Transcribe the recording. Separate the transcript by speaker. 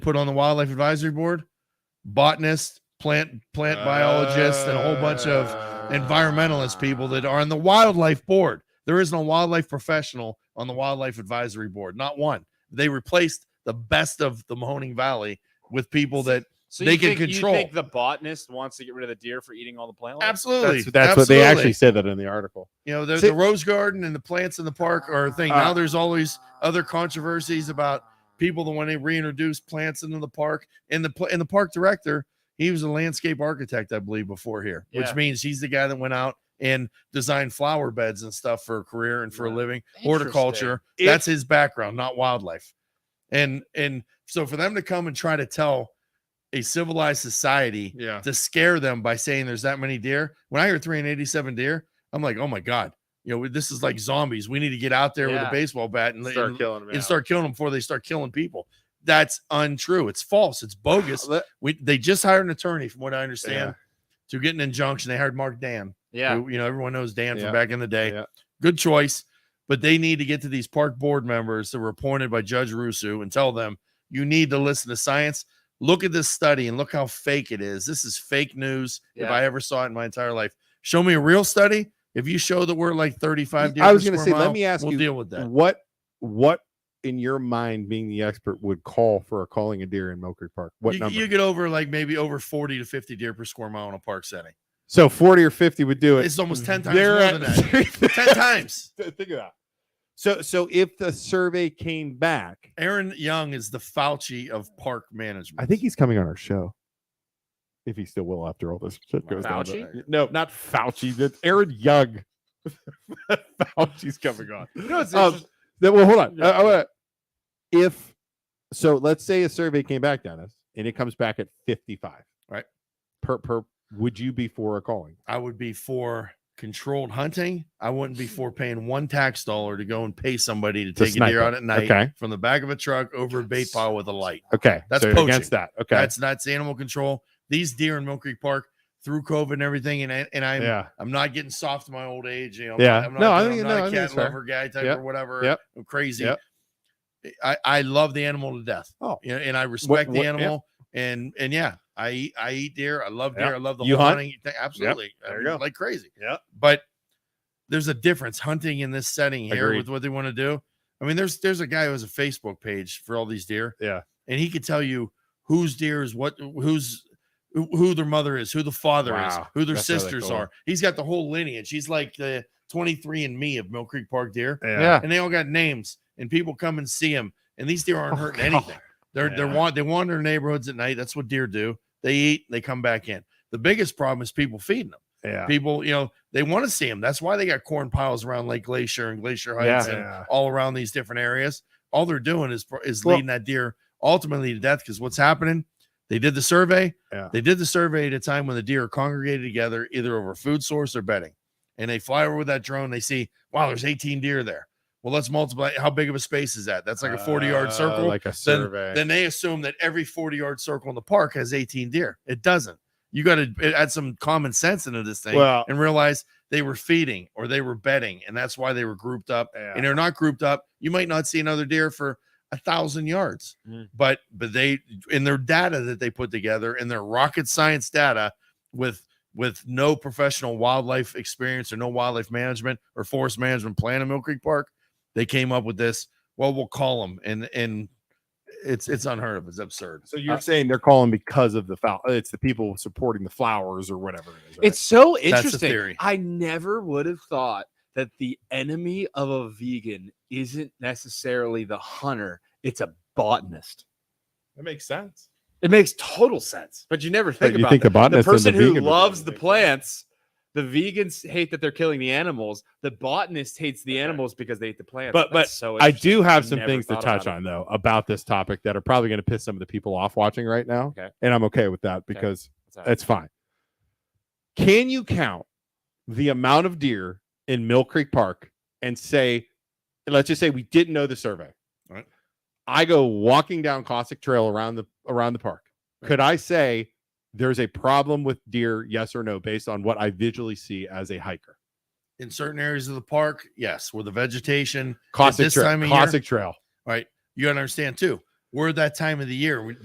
Speaker 1: put on the wildlife advisory board, botanist, plant plant biologists, and a whole bunch of environmentalist people that are on the wildlife board. There isn't a wildlife professional on the wildlife advisory board, not one. They replaced the best of the Mahoning Valley with people that
Speaker 2: So
Speaker 1: they
Speaker 2: you
Speaker 1: can
Speaker 2: think,
Speaker 1: control.
Speaker 2: You think the botanist wants to get rid of the deer for eating all the plant? life?
Speaker 1: absolutely
Speaker 3: That's, that's what they actually said that in the article.
Speaker 1: You know, the,
Speaker 3: See-
Speaker 1: the rose garden and the plants in the park are a thing.
Speaker 3: Uh,
Speaker 1: now there's always other controversies about people that when they reintroduce plants into the park. And the pl- and the park director, he was a landscape architect, I believe, before here,
Speaker 2: Yeah.
Speaker 1: which means he's the guy that went out and designed flower beds and stuff for a career and for a
Speaker 2: Yeah.
Speaker 1: living, horticulture.
Speaker 3: It-
Speaker 1: That's his background, not wildlife. And and so for them to come and try to tell a civilized society
Speaker 4: Yeah.
Speaker 1: to scare them by saying there's that many deer. When I hear 387 deer, I'm like, oh my god, you know, this is like zombies. We need to get out there with
Speaker 2: Yeah.
Speaker 1: a baseball bat and and- and
Speaker 4: Start killing them.
Speaker 1: start killing them before they start killing people. That's untrue. It's false. It's bogus. We they just hired an attorney, from what I understand, to get an injunction. They hired Mark Dan.
Speaker 2: Yeah.
Speaker 1: who, you know, everyone knows Dan
Speaker 3: Yeah.
Speaker 1: from back in the day.
Speaker 3: Yeah.
Speaker 1: Good choice. But they need to get to these park board members that were appointed by Judge Rusu and tell them you need to listen to science. Look at this study and look how fake it is. This is fake news. If
Speaker 2: Yeah.
Speaker 1: I ever saw it in my entire life, show me a real study. If you show that we're like 35 deer
Speaker 3: I
Speaker 1: per
Speaker 3: was gonna
Speaker 1: square
Speaker 3: say, let
Speaker 1: mile,
Speaker 3: me ask
Speaker 1: we'll
Speaker 3: you,
Speaker 1: deal with that.
Speaker 3: What what in your mind, being the expert, would call for a calling a deer in Mill Creek Park? What
Speaker 1: You,
Speaker 3: number?
Speaker 1: you get over like maybe over 40 to 50 deer per square mile in a park setting.
Speaker 3: so forty or fifty would do it.
Speaker 1: It's almost 10 times
Speaker 3: They're
Speaker 1: more than
Speaker 3: at-
Speaker 1: that. 10 times.
Speaker 3: Think of that. So so if the survey came back,
Speaker 1: Aaron Young is the Fauci of park management.
Speaker 3: I think he's coming on our show. If he still will after all this shit goes down.
Speaker 2: Fauci?
Speaker 3: But- No, not Fauci. That's Aaron Young. Fauci's coming on.
Speaker 2: No, it's
Speaker 3: Um,
Speaker 2: interest-
Speaker 3: Then, well, hold on.
Speaker 2: Yeah.
Speaker 3: Uh, I wanna- if so, let's say a survey came back, Dennis, and it comes back at fifty-five.
Speaker 1: Right.
Speaker 3: Per per, would you be for a calling?
Speaker 1: I would be for controlled hunting. I wouldn't be for paying one tax dollar to go and pay somebody to
Speaker 3: To
Speaker 1: take a
Speaker 3: snipe
Speaker 1: deer
Speaker 3: it.
Speaker 1: out at night
Speaker 3: Okay.
Speaker 1: from the back of a truck over a bait pile with a light.
Speaker 3: Okay,
Speaker 1: That's
Speaker 3: so you're against
Speaker 1: poaching.
Speaker 3: that. Okay,
Speaker 1: That's that's animal control. These deer in Mill Creek Park through COVID and everything, and I, and I'm
Speaker 3: yeah.
Speaker 1: I'm not getting soft in my old age. You know, I'm
Speaker 3: Yeah.
Speaker 1: Not, I'm not,
Speaker 3: No, I
Speaker 1: I'm
Speaker 3: think-
Speaker 1: not
Speaker 3: no, I
Speaker 1: a
Speaker 3: think
Speaker 1: cat
Speaker 3: it's fair.
Speaker 1: lover guy type
Speaker 3: Yep.
Speaker 1: or whatever.
Speaker 3: Yep.
Speaker 1: I'm crazy.
Speaker 3: Yep.
Speaker 1: I I love the animal to death.
Speaker 3: Oh.
Speaker 1: You know, and I respect
Speaker 3: what-
Speaker 1: the
Speaker 3: yeah.
Speaker 1: animal. And and yeah, I eat I eat deer. I love deer.
Speaker 3: Yeah.
Speaker 1: I love the
Speaker 3: You
Speaker 1: whole
Speaker 3: hunt?
Speaker 1: hunting thing. Absolutely. I
Speaker 3: There you
Speaker 1: mean,
Speaker 3: go.
Speaker 1: Like crazy.
Speaker 3: Yeah.
Speaker 1: But there's a difference hunting in this setting here
Speaker 3: Agreed.
Speaker 1: with what they want to do. I mean, there's there's a guy who has a Facebook page for all these deer.
Speaker 3: Yeah.
Speaker 1: And he could tell you whose deer is what who's who who their mother is, who the father is,
Speaker 3: Wow.
Speaker 1: who their
Speaker 3: That's really
Speaker 1: sisters
Speaker 3: cool.
Speaker 1: are. He's got the whole lineage. He's like the 23 and me of Mill Creek Park deer.
Speaker 3: Yeah.
Speaker 1: And they all got names, and people come and see them. And these deer aren't
Speaker 3: Oh,
Speaker 1: hurting
Speaker 3: God.
Speaker 1: anything. They're they're
Speaker 2: Yeah.
Speaker 1: want they wander neighborhoods at night. That's what deer do. They eat, they come back in. The biggest problem is people feeding them.
Speaker 3: Yeah.
Speaker 1: People, you know, they want to see them. That's why they got corn piles around Lake Glacier and Glacier Heights and
Speaker 3: Yeah.
Speaker 1: all around these different areas. All they're doing is is
Speaker 3: Well-
Speaker 1: leading that deer ultimately to death because what's happening? They did the survey.
Speaker 3: Yeah.
Speaker 1: They did the survey at a time when the deer are congregated together, either over food source or bedding. And they fly over with that drone. They see, wow, there's 18 deer there. Well, let's multiply. How big of a space is that? That's like a 40 yard
Speaker 3: Uh,
Speaker 1: circle.
Speaker 3: like a survey.
Speaker 1: then they assume that every 40 yard circle in the park has 18 deer. It doesn't. You got to add some common sense into this thing
Speaker 3: well,
Speaker 1: and realize they were feeding or they were bedding, and that's why they were grouped up.
Speaker 3: yeah.
Speaker 1: And they're not grouped up. You might not see another deer for a thousand yards,
Speaker 2: Mm.
Speaker 1: but but they in their data that they put together in their rocket science data with with no professional wildlife experience or no wildlife management or forest management plan in Mill Creek Park, they came up with this. Well, we'll call them, and and it's it's unheard of. It's absurd.
Speaker 3: so you're saying they're calling because of the foul? It's the people supporting the flowers or whatever. It is, right?
Speaker 2: It's so
Speaker 1: the
Speaker 2: interesting.
Speaker 1: theory.
Speaker 2: I never would have thought that the enemy of a vegan isn't necessarily the hunter, it's a botanist.
Speaker 4: That makes sense.
Speaker 2: It makes total sense, but you never
Speaker 3: But
Speaker 2: think
Speaker 3: you
Speaker 2: about
Speaker 3: think the
Speaker 2: that.
Speaker 3: botanist and the
Speaker 2: person who
Speaker 3: vegan would
Speaker 2: loves the
Speaker 4: probably-
Speaker 2: plants. The vegans hate that they're killing the animals. The botanist hates the
Speaker 4: Okay.
Speaker 2: animals because they eat the plants.
Speaker 3: But-
Speaker 2: That's so
Speaker 3: I
Speaker 2: interesting.
Speaker 3: do have some
Speaker 2: Never
Speaker 3: things to
Speaker 2: thought about
Speaker 3: touch
Speaker 2: it.
Speaker 3: on though about this topic that are probably going to piss some of the people off watching right now.
Speaker 2: Okay.
Speaker 3: And I'm okay with that because
Speaker 2: What's that?
Speaker 3: that's fine. Can you count the amount of deer in Mill Creek Park and say, let's just say we didn't know the survey.
Speaker 1: Right.
Speaker 3: I go walking down Cossack Trail around the around the park. Could I say there's a problem with deer, yes or no, based on what I visually see as a hiker?
Speaker 1: In certain areas of the park, yes, where the vegetation
Speaker 3: Cossack
Speaker 1: this
Speaker 3: Trail.
Speaker 1: time of year?
Speaker 3: Cossack Trail.
Speaker 1: All right. You got to understand too. We're at that time of the year. We,